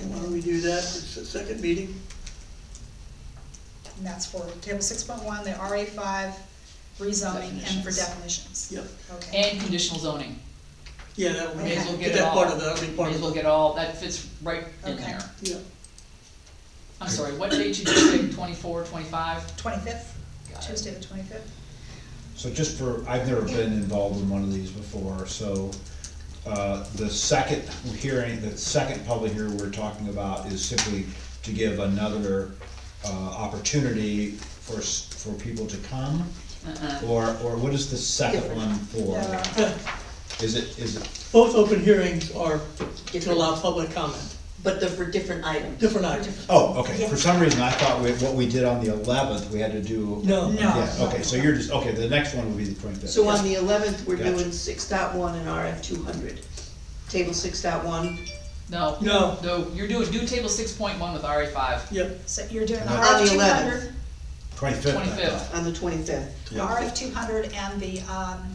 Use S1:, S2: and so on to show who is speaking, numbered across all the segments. S1: And why don't we do that, it's the second meeting,
S2: And that's for table six point one, the RA five rezoning and for
S3: Definitions.
S2: definitions.
S1: yep.
S2: Okay,
S3: And conditional zoning,
S1: Yeah, that would,
S2: May as well
S1: get
S3: get it
S1: that part
S3: all.
S1: of the, that'll be
S3: might
S1: part
S3: as
S1: of
S3: well
S1: it,
S3: get all, that fits right in
S2: Okay.
S3: there.
S1: yeah.
S3: I'm sorry, what date you just pick, twenty-four, twenty-five?
S2: twenty-fifth,
S3: Got it.
S2: Tuesday the twenty-fifth.
S4: So just for, I've never been involved in one of these before, so, uh, the second hearing, the second public hearing we're talking about is simply to give another, uh, opportunity for, s- for people to come?
S3: Uh-uh.
S4: Or, or what is the second one for?
S2: Uh,
S4: Is it, is it,
S1: Both open hearings are to allow public comment,
S5: But they're for different items.
S1: different items.
S4: oh, okay, for some reason I thought we, what we did on the eleventh, we had to do.
S1: No. No.
S4: Yeah, okay, so you're just, okay, the next one will be the twenty-fifth.
S5: So on the eleventh, we're
S4: Gotcha.
S5: doing six dot one and RF two hundred. Table six dot one,
S3: No.
S1: No.
S3: No, you're doing, do table six point one with RA five.
S1: Yep,
S2: So you're doing
S4: And
S5: that's-
S2: RF two
S5: 11th.
S2: hundred,
S4: Twenty-fifth.
S3: 25th.
S5: on the twenty-fifth.
S2: RF two hundred and the, um,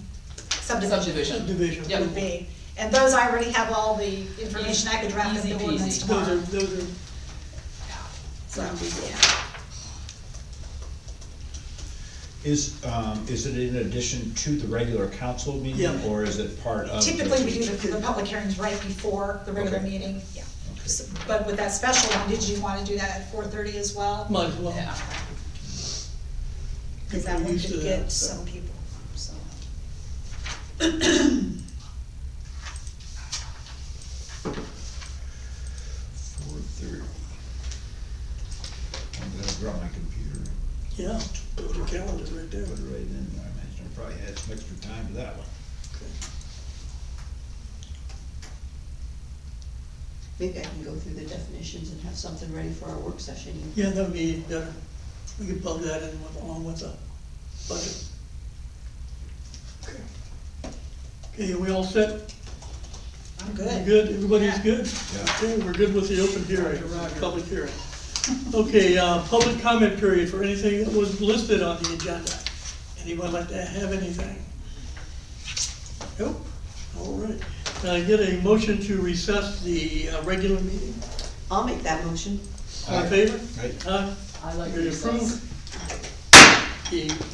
S2: subdivision
S3: Subdivision.
S1: division.
S3: Yep.
S2: would be. And those, I already have all the information, I could draft up
S3: Easy
S2: the
S3: peasy.
S2: ordinance
S1: Those are, Um,
S2: tomorrow.
S1: those are,
S2: So, yeah.
S4: Is, um, is it in addition to the regular council meeting,
S1: Yeah.
S4: or is it part of? the-
S2: Typically, we do the, the public hearings right before the regular
S4: Okay.
S2: meeting, yeah. So- But with that special one, did you wanna do that at four thirty as well?
S1: might as well.
S3: Yeah.
S2: Cause that
S1: People are
S2: one
S1: used to
S2: could
S1: that,
S2: get
S1: so.
S2: some people, so.
S4: Four thirty. I'm gonna grab my computer and
S1: Yeah, put your calendar right there.
S4: put it right in, I imagine I probably had some extra time for that one.
S5: Maybe I can go through the definitions and have something ready for our work session.
S1: Yeah, that would be better, we could plug that in with- along with the budget. Okay, are we all set?
S2: I'm
S1: We're
S2: good.
S1: Good, everybody's good?
S4: Yeah.
S1: Okay, we're good with the open hearing, public hearing. Okay, uh, public comment period for anything that was listed on the agenda. Anyone like to have anything? Nope, all right. Can I get a motion to recess the uh, regular meeting?
S5: I'll make that motion.
S1: All in
S4: Aye.
S1: favor?
S4: Aye.
S1: Aye.
S3: I like
S1: You're
S3: recess.
S1: approved. The